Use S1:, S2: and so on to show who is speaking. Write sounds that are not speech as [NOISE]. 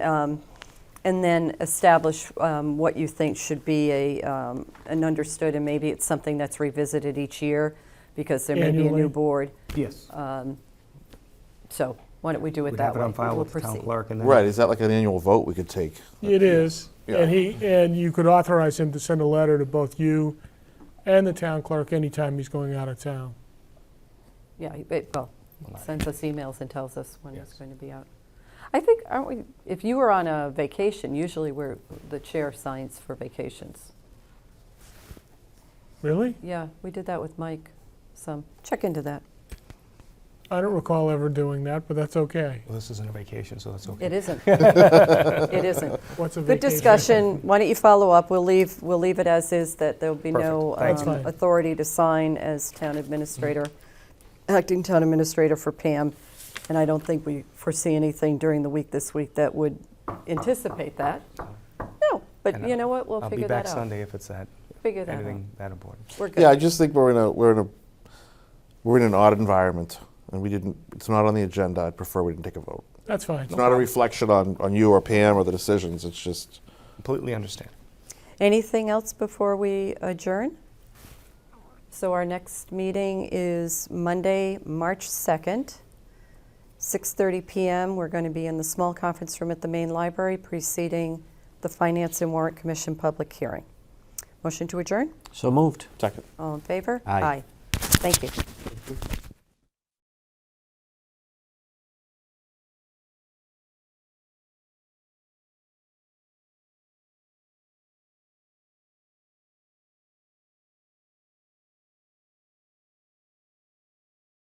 S1: Um, And then establish um, what you think should be a, um, an understood, and maybe it's something that's revisited each year, because there may be a new
S2: Annually.
S1: board.
S2: Yes.
S1: So why don't we do it
S3: We'd
S1: Uh, that
S3: have
S1: way?
S3: it on file
S1: We'll
S3: with the town
S1: proceed.
S3: clerk and then.
S4: Right, is that like an annual vote we could take?
S2: It is.
S4: Yeah.
S2: And he, and you could authorize him to send a letter to both you and the town clerk anytime he's going out of town.
S1: Yeah, he- it- well, sends us emails and tells us when it's going to be out. I think, aren't we, if you were on a vacation, usually we're, the chair signs for vacations.
S2: Really?
S1: Yeah, we did that with Mike, so check into that.
S2: I don't recall ever doing that, but that's okay.
S3: Well, this isn't a vacation, so that's okay.
S1: It
S3: [LAUGHS]
S1: isn't. It isn't.
S2: What's a
S1: Good
S2: vacation?
S1: discussion. Why don't you follow up? We'll leave, we'll leave it as is, that there'll be no
S3: Perfect.
S2: Thank you.
S1: um, authority to sign as town administrator, acting town administrator for Pam. And I don't think we foresee anything during the week this week that would anticipate that. No, but
S3: And
S1: you know what? We'll
S3: I'll be
S1: figure
S3: back
S1: that out.
S3: Sunday if it's that,
S1: Figure that out.
S3: anything that important.
S1: We're good.
S4: Yeah, I just think we're in a, we're in a, we're in an odd environment, and we didn't, it's not on the agenda, I'd prefer we didn't take a vote.
S2: That's fine.
S4: It's not a reflection on, on you or Pam or the decisions, it's just,
S3: Completely understand.
S1: Anything else before we adjourn? So our next meeting is Monday, March 2nd, 6:30 PM. We're going to be in the small conference room at the main library preceding the Finance and Warrant Commission public hearing. Motion to adjourn?
S5: So moved.
S4: second.
S1: All in favor?
S5: Aye.
S1: Thank you.